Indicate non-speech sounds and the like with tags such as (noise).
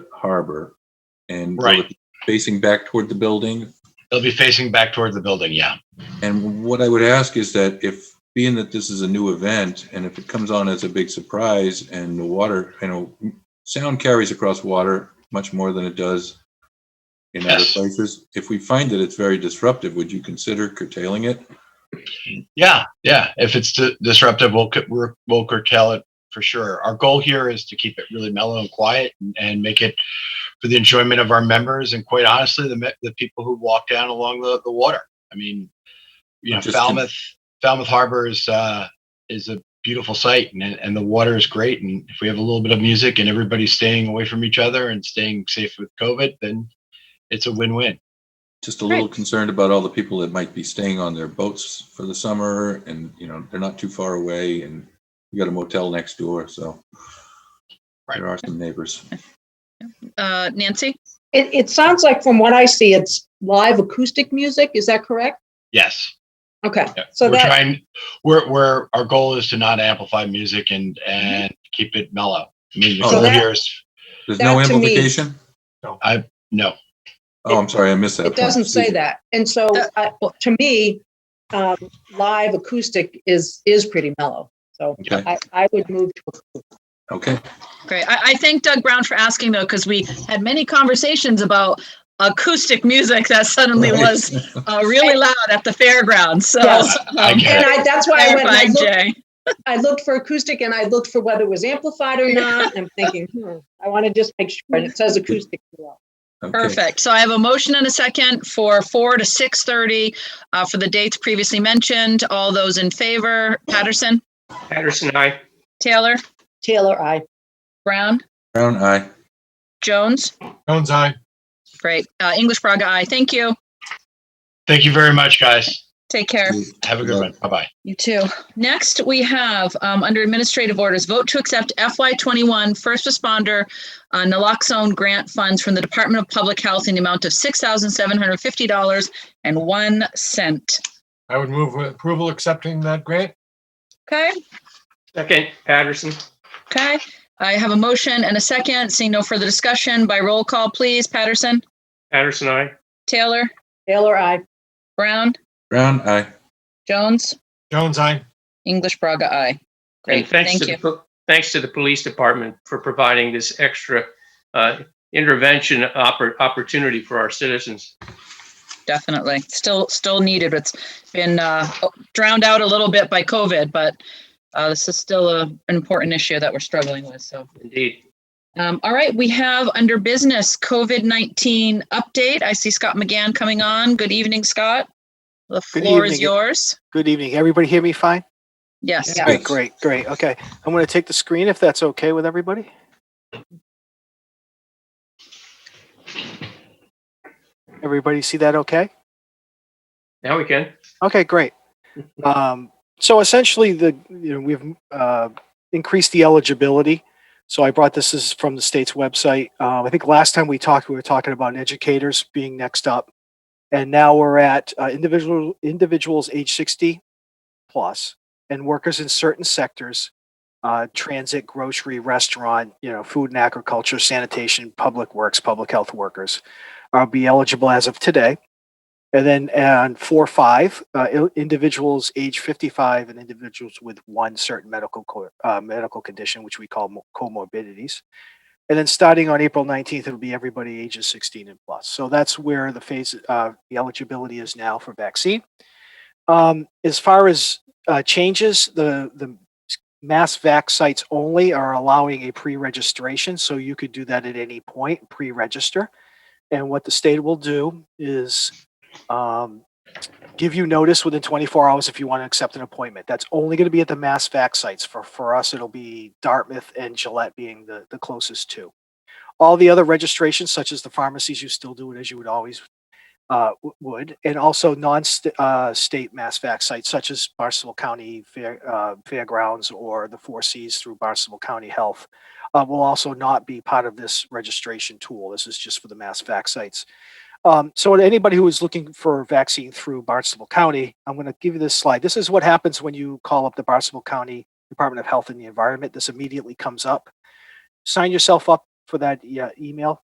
harbor and go Right. facing back toward the building. It'll be facing back toward the building, yeah. And what I would ask is that if, being that this is a new event, and if it comes on as a big surprise and the water, you know, sound carries across water much more than it does in other Yes. places. If we find that it's very disruptive, would you consider curtailing it? Yeah, yeah. If it's di- disruptive, we'll, cu- we'll- we'll curtail it for sure. Our goal here is to keep it really mellow and quiet and, and make it for the enjoyment of our members and quite honestly, the, me- the people who walk down along the, the water. I mean, you know, Just to- Falmouth, Falmouth Harbor is, uh, is a beautiful site and, and the water is great. And if we have a little bit of music and everybody's staying away from each other and staying safe with COVID, then it's a win-win. Just a little concerned about all the people that might be staying on their boats for the summer and, you know, they're not too far away and we got a motel next door, so. Right. There are some neighbors. Uh, Nancy? It, it sounds like from what I see, it's live acoustic music. Is that correct? Yes. Okay. Yeah, So we're that, trying. We're we're our goal is to not amplify music and and keep it mellow. I mean, the So goal that- here is There's no That to me- amplification? no. Oh, I'm sorry, I missed that. it doesn't part. say that. And so That- I- to me, um, live acoustic is, is pretty mellow. So Okay. I, I would move to, Okay, Great. I, I thank Doug Brown for asking though, because we had many conversations about acoustic music that suddenly Right. was uh, really loud at the fairgrounds. So, (laughs) Yes. I um, get and I, that's why I went, and I clarified, Jay. looked, I looked for acoustic and I looked for whether it was amplified or not. I'm thinking, hmm, I want to just make sure. And it says acoustic. below. okay. Perfect. So I have a motion and a second for four to six thirty, uh, for the dates previously mentioned. All those in favor, Patterson, Patterson, aye. Taylor, Taylor, I. Brown, Brown eye. Jones? Jones, I. Great. Uh, English Braga, aye. Thank you. Thank you very much, guys. Take care. Have a good one. Bye bye. You too. Next, we have, um, under administrative orders, vote to accept FY twenty-one first responder uh, naloxone grant funds from the Department of Public Health in the amount of six thousand seven hundred fifty dollars and one cent. I would move with approval accepting that grant. Okay, Second, Patterson. okay. I have a motion and a second. Seeing no further discussion by roll call, please. Patterson, Patterson, aye. Taylor, Taylor, I. Brown, Brown eye. Jones, Jones, I. English Braga, aye. And Great, thanks thank to you. the, po- thanks to the police department for providing this extra uh, intervention oppor- opportunity for our citizens. definitely still still needed it's been uh, drowned out a little bit by covid but uh, this is still a, an important issue that we're struggling with so Indeed. um, all right we have under business covid-19 update i see scott mcgann coming on good evening scott the Good floor is evening. yours Good evening. Everybody hear me fine? yes Yeah. All right, Yes. great, great. Okay. I'm going to take the screen if that's okay with everybody. Everybody see that okay? Now we can. Okay, great. Um, so essentially, the you know we've uh, increased the eligibility. So I brought this, this is from the state's website. Um, I think last time we talked, we were talking about educators being next up, and now we're at uh, individual individuals age sixty plus and workers in certain sectors, uh, transit, grocery, restaurant, you know, food and agriculture, sanitation, public works, public health workers, are be eligible as of today. And then on four, five, uh, i- individuals age 55 and individuals with one certain medical co- uh, medical condition, which we call mo- comorbidities. And then starting on April 19th, it'll be everybody ages 16 and plus. So that's where the phase, uh, the eligibility is now for vaccine. Um, as far as uh, changes, the, the s- mass vac sites only are allowing a pre-registration. So you could do that at any point, pre-register. And what the state will do is um, give you notice within 24 hours if you want to accept an appointment. That's only going to be at the mass vac sites. For, for us, it'll be Dartmouth and Gillette being the, the closest two. All the other registrations, such as the pharmacies, you still do it as you would always uh, w- would, and also non-state uh, state mass vac sites, such as Barnstable County Fair, uh, Fairgrounds or the Four Cs through Barnstable County Health, uh, will also not be part of this registration tool. This is just for the mass vac sites. Um, so to anybody who is looking for a vaccine through Barnstable County, I'm going to give you this slide. This is what happens when you call up the Barnstable County Department of Health and the Environment. This immediately comes up. Sign yourself up for that yeah, email.